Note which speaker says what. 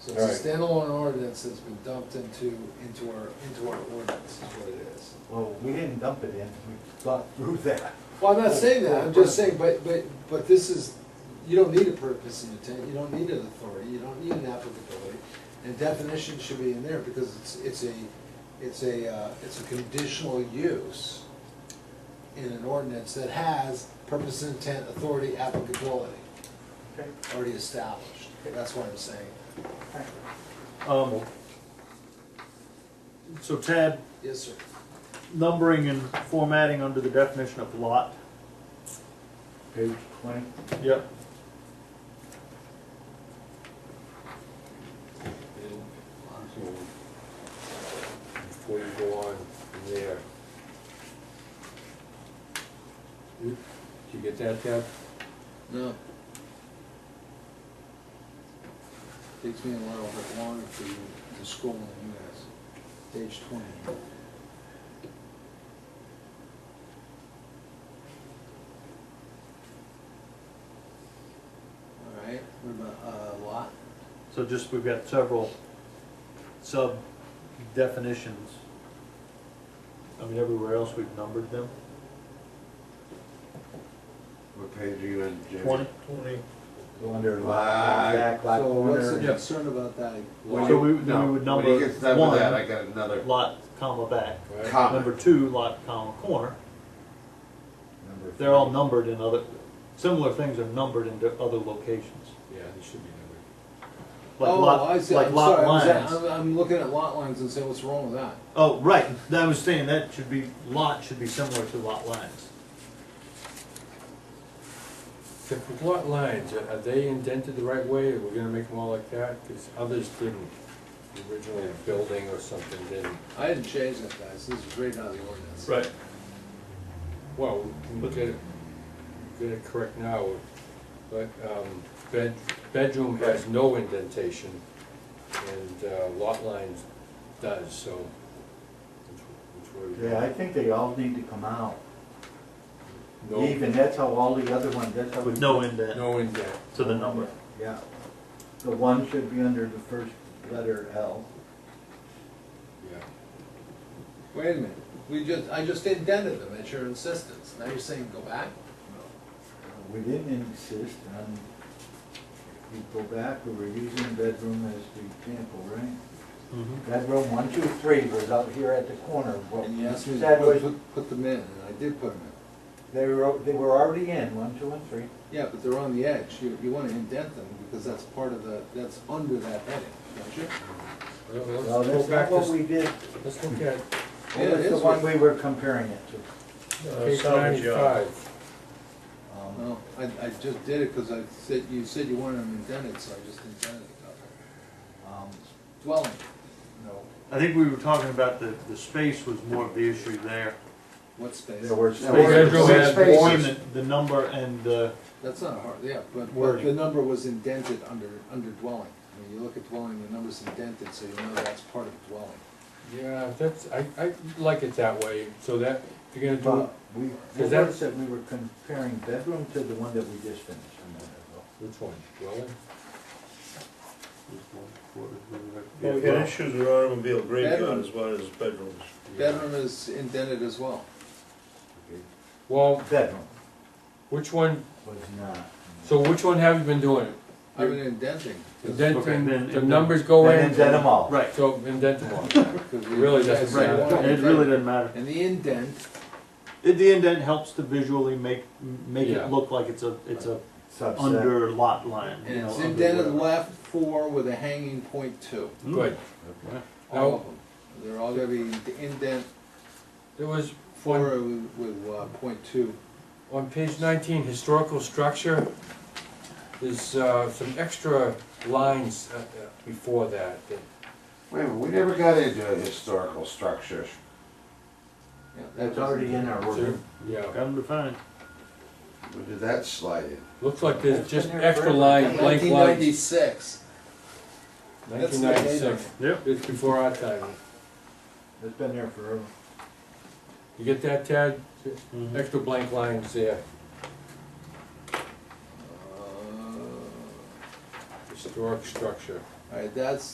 Speaker 1: So it's a
Speaker 2: All
Speaker 1: standalone ordinance that's been dumped into, into our, into our ordinance is what it is.
Speaker 2: Well, we didn't dump it in, we thought through that.
Speaker 1: Well, I'm not saying that, I'm just saying, but, but, but this is, you don't need a purpose and intent, you don't need an authority, you don't need an applicability. And definition should be in there because it's, it's a, it's a, uh, it's a conditional use in an ordinance that has purpose, intent, authority, applicability
Speaker 2: Okay.
Speaker 1: already established. That's what I'm saying.
Speaker 3: Um, So Tad,
Speaker 1: Yes, sir.
Speaker 3: numbering and formatting under the definition of lot.
Speaker 2: Page twenty.
Speaker 3: Yep.
Speaker 4: And Before you go on from there. Did you get that, Deb?
Speaker 1: No. Takes me a little bit longer for you to scroll than you guys. Page twenty. All right, what about, uh, lot?
Speaker 3: So just, we've got several sub definitions. I mean, everywhere else we've numbered them.
Speaker 4: What page are you in, Jimmy?
Speaker 3: Twenty.
Speaker 2: Go under
Speaker 4: Ah,
Speaker 2: lot, back lot
Speaker 1: So what's the
Speaker 2: corner.
Speaker 3: Yeah.
Speaker 1: concern about that?
Speaker 3: Well,
Speaker 4: When
Speaker 3: So
Speaker 4: you-
Speaker 1: Lot?
Speaker 3: we- then
Speaker 4: no,
Speaker 3: we would
Speaker 4: When
Speaker 3: number
Speaker 4: he gets done with that,
Speaker 3: one.
Speaker 4: I got another
Speaker 3: Lot, comma, back. Number
Speaker 4: comment.
Speaker 3: two, lot, comma, corner.
Speaker 2: Number
Speaker 3: They're all
Speaker 2: three.
Speaker 3: numbered in other, similar things are numbered in other locations.
Speaker 4: Yeah, it should be numbered.
Speaker 3: Like
Speaker 1: Oh,
Speaker 3: lot-
Speaker 1: I see,
Speaker 3: like
Speaker 1: I'm
Speaker 3: lot
Speaker 1: sorry, I was at-
Speaker 3: lines.
Speaker 1: I'm, I'm looking at lot lines and saying, what's wrong with that?
Speaker 3: Oh, right, I was saying that should be, lot should be similar to lot lines.
Speaker 4: The Lot lines, are are they indented the right way, are we gonna make them all like that? Because others didn't, originally a building or something didn't.
Speaker 1: I didn't change that, guys, this is right out of the ordinance.
Speaker 3: Right.
Speaker 4: Well, we can get it, get it correct now, but, um, bed, bedroom has no indentation, and uh, lot lines does, so. which- which way we go?
Speaker 2: Yeah, I think they all need to come out.
Speaker 4: No-
Speaker 2: Even, that's how all the other ones, that's how. we-
Speaker 3: With no indent
Speaker 4: No indent,
Speaker 3: to the number.
Speaker 2: Yeah. The one should be under the first letter L.
Speaker 4: yeah.
Speaker 1: Wait a minute, we just, I just indented them at your insistence, now you're saying go back?
Speaker 2: We didn't insist on, you go back, we were using bedroom as the example, right?
Speaker 3: Mm-hmm.
Speaker 2: Bedroom one, two, three was out here at the corner. What
Speaker 1: And you asked me to
Speaker 2: said
Speaker 1: put-
Speaker 2: was
Speaker 1: put, put them in, and I did put them in.
Speaker 2: They were, they were already in, one, two, and three.
Speaker 1: Yeah, but they're on the edge, you, you wanna indent them, because that's part of the, that's under that heading, don't you?
Speaker 4: Well,
Speaker 2: Well,
Speaker 4: Let's go
Speaker 2: that's
Speaker 4: back
Speaker 2: not
Speaker 4: to,
Speaker 2: what we
Speaker 4: s-
Speaker 2: did,
Speaker 4: let's look at
Speaker 1: Yeah,
Speaker 2: what was
Speaker 1: it
Speaker 2: the
Speaker 1: is
Speaker 2: one
Speaker 1: what-
Speaker 2: we were comparing it to.
Speaker 4: page ninety-five.
Speaker 2: Um,
Speaker 4: Uh,
Speaker 1: No, I, I just did it, cause I said, you said you wanted them indented, so I just indented it.
Speaker 2: um,
Speaker 1: Dwelling,
Speaker 2: No,
Speaker 3: I think we were talking about the, the space was more of the issue there.
Speaker 1: what space?
Speaker 2: there were.
Speaker 4: There were bedroom
Speaker 2: six
Speaker 4: had
Speaker 2: spaces.
Speaker 3: Between the, the number and the,
Speaker 1: That's not hard, yeah, but, but
Speaker 3: Wording.
Speaker 1: the number was indented under, under dwelling. When you look at dwelling, the number's indented, so you know that's part of dwelling.
Speaker 4: Yeah, that's, I, I like it that way, so that, if you're gonna do,
Speaker 2: But we,
Speaker 4: Is
Speaker 2: the
Speaker 4: that-
Speaker 2: words that we were comparing bedroom to the one that we just finished a minute ago.
Speaker 4: which one, dwelling? Oh,
Speaker 5: Well, we got issues with automobile graveyard as well as bedrooms.
Speaker 1: Bedroom is indented as well.
Speaker 4: Well,
Speaker 2: Bedroom
Speaker 4: which one,
Speaker 2: was not.
Speaker 4: so which one have you been doing?
Speaker 1: I've been indenting.
Speaker 3: Okay, then-
Speaker 4: Indenting, the
Speaker 3: then-
Speaker 4: numbers go in.
Speaker 2: And then them all.
Speaker 3: right,
Speaker 4: So indent them all.
Speaker 1: because we-
Speaker 4: Really doesn't
Speaker 1: Right.
Speaker 4: matter.
Speaker 3: it really doesn't matter.
Speaker 1: And the indent,
Speaker 3: It- The indent helps to visually make, make
Speaker 4: Yeah.
Speaker 3: it look like it's a, it's a
Speaker 2: Subset.
Speaker 3: under lot line, you
Speaker 1: and
Speaker 3: know,
Speaker 1: it's
Speaker 3: under
Speaker 1: indented
Speaker 3: whatever.
Speaker 1: left four with a hanging point two,
Speaker 3: Hmm.
Speaker 4: Good.
Speaker 1: all
Speaker 4: Now-
Speaker 1: of them. They're all gonna be indent
Speaker 4: There was
Speaker 1: four
Speaker 4: one,
Speaker 1: with, with uh, point two.
Speaker 4: on page nineteen, historical structure. There's, uh, some extra lines, uh, uh, before that, that,
Speaker 6: Wait a minute, we never got into a historical structure.
Speaker 1: Yeah, that
Speaker 2: That's already in our order.
Speaker 4: yeah.
Speaker 3: Got 'em defined.
Speaker 6: Where did that slide in?
Speaker 4: Looks like there's just
Speaker 2: That's been there
Speaker 4: extra
Speaker 2: forever.
Speaker 4: line, blank
Speaker 1: Nineteen
Speaker 4: lines.
Speaker 1: ninety-six. That's
Speaker 4: Nineteen
Speaker 1: the date.
Speaker 4: ninety-six,
Speaker 3: Yep.
Speaker 4: it's before our time.
Speaker 2: It's been there forever.
Speaker 4: You get that, Tad?
Speaker 3: Mhm.
Speaker 4: Extra blank lines there,
Speaker 1: Uh,
Speaker 4: historic structure.
Speaker 1: All right, that's,